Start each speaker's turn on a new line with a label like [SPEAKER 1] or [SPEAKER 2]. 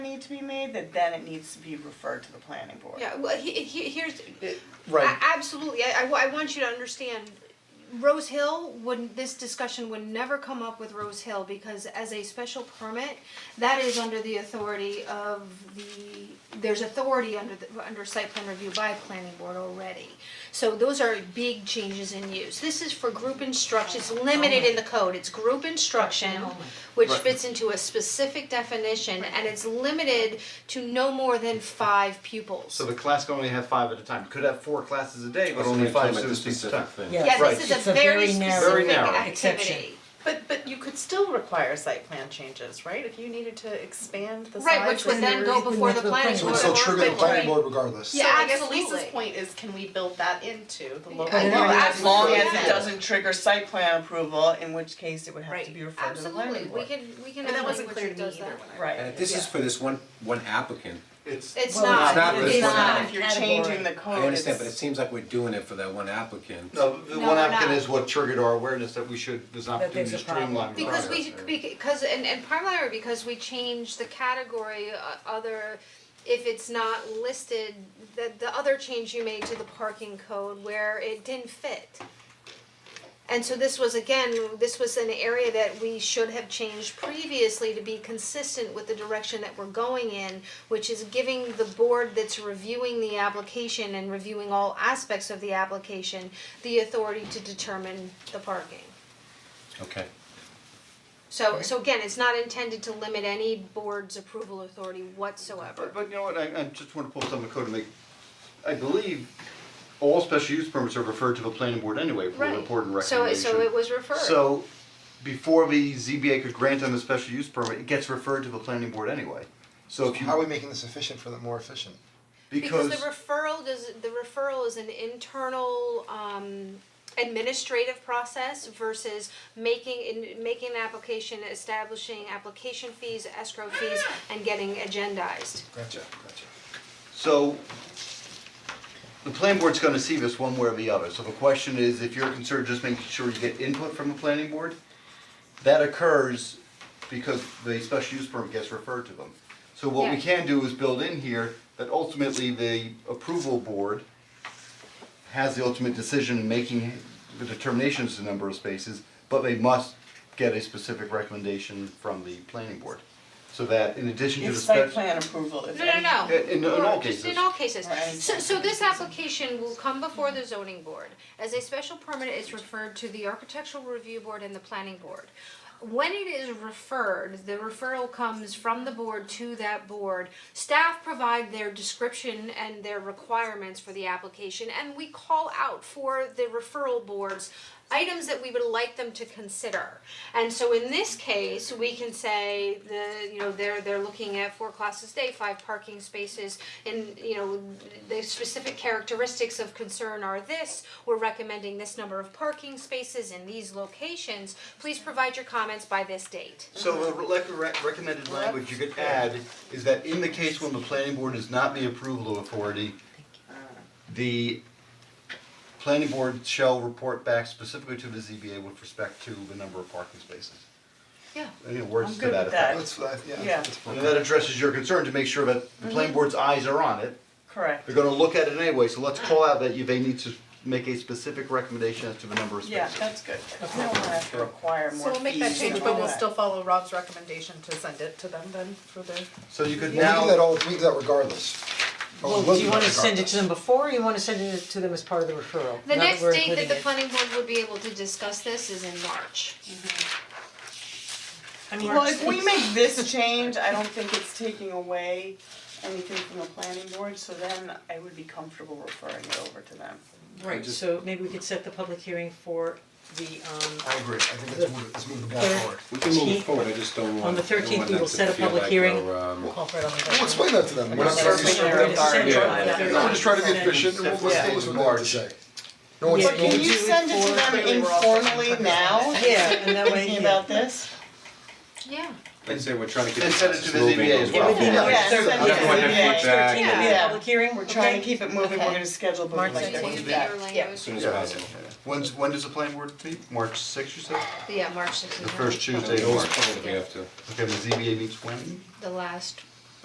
[SPEAKER 1] to be made, that then it needs to be referred to the planning board.
[SPEAKER 2] Yeah, well, he, he, here's,
[SPEAKER 3] Uh, Right,
[SPEAKER 2] A- Absolutely, I, I wa- I want you to understand, Rose Hill would, this discussion would never come up with Rose Hill, because as a special permit, that is under the authority of the, there's authority under the, under site plan review by planning board already. So those are big changes in use, this is for group instruction, it's limited in the code, it's group instruction, which
[SPEAKER 3] Right.
[SPEAKER 2] fits into a specific definition, and it's limited to no more than five pupils.
[SPEAKER 3] so the class can only have five at a time, could have four classes a day, but
[SPEAKER 4] That's
[SPEAKER 3] only
[SPEAKER 4] what I'm
[SPEAKER 3] five
[SPEAKER 4] talking about,
[SPEAKER 3] students
[SPEAKER 4] this
[SPEAKER 3] each
[SPEAKER 4] specific
[SPEAKER 3] time.
[SPEAKER 4] thing.
[SPEAKER 5] Yeah.
[SPEAKER 2] Yeah,
[SPEAKER 3] Right.
[SPEAKER 2] this is
[SPEAKER 5] It's
[SPEAKER 2] a very
[SPEAKER 3] Very
[SPEAKER 2] specific
[SPEAKER 3] narrow.
[SPEAKER 2] activity.
[SPEAKER 6] But but you could still require site plan changes, right? If you needed to expand the size.
[SPEAKER 2] Right, which would
[SPEAKER 6] and
[SPEAKER 2] then go
[SPEAKER 6] your-
[SPEAKER 2] before the planning
[SPEAKER 5] So
[SPEAKER 2] board.
[SPEAKER 5] it's
[SPEAKER 6] still trigger the planning
[SPEAKER 2] board.
[SPEAKER 5] regardless.
[SPEAKER 2] Yeah,
[SPEAKER 6] So I guess
[SPEAKER 2] absolutely.
[SPEAKER 6] Lisa's point is, can we build that into the local?
[SPEAKER 2] I know,
[SPEAKER 6] law?
[SPEAKER 1] As long as
[SPEAKER 2] Yeah.
[SPEAKER 1] it doesn't trigger site plan approval, in which case it would have to be referred to the
[SPEAKER 2] Absolutely,
[SPEAKER 1] planning
[SPEAKER 2] we
[SPEAKER 1] board.
[SPEAKER 2] can, we can have
[SPEAKER 6] And that wasn't
[SPEAKER 2] language
[SPEAKER 6] clear
[SPEAKER 2] that
[SPEAKER 6] to me
[SPEAKER 2] does
[SPEAKER 6] either
[SPEAKER 2] that.
[SPEAKER 6] when I.
[SPEAKER 1] Right.
[SPEAKER 4] And if this is for this one, one applicant,
[SPEAKER 3] It's,
[SPEAKER 2] It's
[SPEAKER 5] Well,
[SPEAKER 2] not,
[SPEAKER 4] it's not
[SPEAKER 2] it's
[SPEAKER 4] this
[SPEAKER 1] It's
[SPEAKER 4] one.
[SPEAKER 1] not
[SPEAKER 2] not.
[SPEAKER 1] if you're changing the
[SPEAKER 7] Oh,
[SPEAKER 1] code,
[SPEAKER 4] I understand, but it
[SPEAKER 1] it's-
[SPEAKER 4] seems like we're doing it for that one applicant.
[SPEAKER 3] no, the
[SPEAKER 2] No,
[SPEAKER 3] one
[SPEAKER 2] we're
[SPEAKER 3] applicant
[SPEAKER 2] not.
[SPEAKER 3] is what triggered our awareness that we should, there's an
[SPEAKER 5] That
[SPEAKER 3] opportunity
[SPEAKER 5] there's
[SPEAKER 3] to
[SPEAKER 5] a problem.
[SPEAKER 3] streamline the
[SPEAKER 2] Because we,
[SPEAKER 3] process.
[SPEAKER 2] because, and, and primarily because we changed the category, uh, other, if it's not listed, the, the other change you made to the parking code where it didn't fit. And so this was again, this was an area that we should have changed previously to be consistent with the direction that we're going in, which is giving the board that's reviewing the application and reviewing all aspects of the application, the authority to determine the parking.
[SPEAKER 4] Okay.
[SPEAKER 2] So so again, it's not intended to limit any board's approval authority whatsoever.
[SPEAKER 3] But but you know what, I I just wanna pull something code to make, I believe all special use permits are referred to the planning board anyway for
[SPEAKER 2] Right.
[SPEAKER 3] report and
[SPEAKER 2] So
[SPEAKER 3] recommendation.
[SPEAKER 2] it- so it was referred.
[SPEAKER 3] So before the ZBA could grant them a special use permit, it gets referred to the planning board anyway. So if you,
[SPEAKER 5] How are we making this efficient for the more efficient?
[SPEAKER 3] because
[SPEAKER 2] the referral does the referral is an internal um administrative process versus making in making an application, establishing application fees, escrow fees, and getting agendized.
[SPEAKER 5] Gotcha, gotcha.
[SPEAKER 3] So the planning board's gonna see this one way or the other, so the question is, if you're concerned just making sure you get input from the planning board, that occurs because the special use permit gets referred to them. So what we
[SPEAKER 2] Yeah.
[SPEAKER 3] can do is build in here that ultimately the approval board has the ultimate decision in making the determinations to number of spaces, but they must get a specific recommendation from the planning board. So that in addition to the
[SPEAKER 1] It's
[SPEAKER 3] special.
[SPEAKER 1] site plan approval, if
[SPEAKER 2] No, no,
[SPEAKER 1] any
[SPEAKER 2] no.
[SPEAKER 3] In- in- in all
[SPEAKER 2] Or just
[SPEAKER 3] cases.
[SPEAKER 2] in all cases.
[SPEAKER 1] Right.
[SPEAKER 2] So so this application will come before the zoning board. As a special permit, it's referred to the architectural review board and the planning board. When it is referred, the referral comes from the board to that board. Staff provide their description and their requirements for the application and we call out for the referral boards items that we would like them to consider. And so in this case, we can say the, you know, they're they're looking at four classes a day, five parking spaces, and you know, the specific characteristics of concern are this, we're recommending this number of parking spaces in these locations, please provide your comments by this date.
[SPEAKER 3] So the rec- rec- recommended language you could add is that in the case when the planning board is not the approval authority, the planning board shall report back specifically to the ZBA with respect to the number of parking spaces.
[SPEAKER 2] Yeah.
[SPEAKER 3] Any words
[SPEAKER 1] I'm
[SPEAKER 3] to
[SPEAKER 1] good
[SPEAKER 3] that
[SPEAKER 1] with
[SPEAKER 3] effect?
[SPEAKER 5] That's, what I- yeah,
[SPEAKER 1] Yeah.
[SPEAKER 5] that's
[SPEAKER 3] And
[SPEAKER 5] perfect.
[SPEAKER 3] that addresses your concern to make sure that the
[SPEAKER 1] Mm-hmm.
[SPEAKER 3] planning board's eyes are on it.
[SPEAKER 1] correct.
[SPEAKER 3] They're gonna look at it anyway, so let's call out that you, they need to make a specific recommendation as to the number of
[SPEAKER 1] Yeah,
[SPEAKER 3] spaces.
[SPEAKER 1] that's good, we don't wanna have to require more fees
[SPEAKER 6] So we'll make that change,
[SPEAKER 1] and
[SPEAKER 6] but
[SPEAKER 1] all
[SPEAKER 6] we'll still follow Rob's recommendation to send it to them then for their.
[SPEAKER 3] So you could
[SPEAKER 5] Well,
[SPEAKER 3] now.
[SPEAKER 5] we do that all, we do that
[SPEAKER 1] Oh,
[SPEAKER 5] regardless. Or we will
[SPEAKER 7] Well, do you wanna
[SPEAKER 5] that
[SPEAKER 7] send it to
[SPEAKER 5] regardless.
[SPEAKER 7] them before, or you wanna send it to them as part of the referral?
[SPEAKER 2] The
[SPEAKER 7] Now
[SPEAKER 2] next
[SPEAKER 7] we're
[SPEAKER 2] date that
[SPEAKER 7] including
[SPEAKER 2] the
[SPEAKER 7] it.
[SPEAKER 2] planning board would be able to discuss this is in March.
[SPEAKER 7] I mean,
[SPEAKER 1] Well, if we make this change, I don't think it's taking away anything from the planning board, so then I would be comfortable referring it over to them.
[SPEAKER 7] right, so maybe we could set the public hearing for the um
[SPEAKER 5] I agree, I think let's move, it- let's move the ball
[SPEAKER 7] Third.
[SPEAKER 5] forward.
[SPEAKER 4] We can move
[SPEAKER 7] Eighteenth.
[SPEAKER 4] it forward, I just don't want,
[SPEAKER 7] On the
[SPEAKER 4] I don't
[SPEAKER 7] 13th,
[SPEAKER 4] want
[SPEAKER 7] we
[SPEAKER 4] that
[SPEAKER 7] will
[SPEAKER 4] to
[SPEAKER 7] set a
[SPEAKER 4] feel
[SPEAKER 7] public
[SPEAKER 4] like
[SPEAKER 7] hearing.
[SPEAKER 4] we're, um,
[SPEAKER 7] call for it on the
[SPEAKER 5] We'll explain that to them, we're not
[SPEAKER 1] Yeah.
[SPEAKER 5] gonna be
[SPEAKER 1] Yeah.
[SPEAKER 5] strict.
[SPEAKER 1] Yeah.
[SPEAKER 5] No, we're just trying to be efficient, and we'll, let's
[SPEAKER 1] Yeah.
[SPEAKER 5] do what we have to say. No one's,
[SPEAKER 7] Yeah.
[SPEAKER 5] no
[SPEAKER 1] Can
[SPEAKER 5] one's-
[SPEAKER 1] you send it to them informally now,
[SPEAKER 7] Yeah, and that way,
[SPEAKER 1] thinking about this?
[SPEAKER 2] Yeah.
[SPEAKER 4] I'd say we're trying to get
[SPEAKER 3] And send it to the
[SPEAKER 4] moving
[SPEAKER 3] ZBA
[SPEAKER 4] on
[SPEAKER 3] as
[SPEAKER 4] the-
[SPEAKER 3] well.
[SPEAKER 7] It would be March
[SPEAKER 1] Yeah, send it
[SPEAKER 7] thirteenth.
[SPEAKER 1] to the ZBA.
[SPEAKER 4] Feedback
[SPEAKER 7] It'll be a
[SPEAKER 1] Yeah.
[SPEAKER 7] public hearing, we're
[SPEAKER 1] Trying
[SPEAKER 7] trying
[SPEAKER 1] to keep it moving, we're gonna schedule both
[SPEAKER 7] March
[SPEAKER 1] like
[SPEAKER 2] So
[SPEAKER 1] that.
[SPEAKER 2] you
[SPEAKER 3] do
[SPEAKER 2] do
[SPEAKER 3] that.
[SPEAKER 2] your language.
[SPEAKER 4] as soon as possible.
[SPEAKER 3] When's, when does the planning board meet? March sixth, you said?
[SPEAKER 2] Yeah, March sixteenth.
[SPEAKER 3] The first Tuesday
[SPEAKER 4] They
[SPEAKER 3] of
[SPEAKER 4] always
[SPEAKER 3] March.
[SPEAKER 4] call it if we have to.
[SPEAKER 3] Okay, the ZBA meets when?
[SPEAKER 2] The last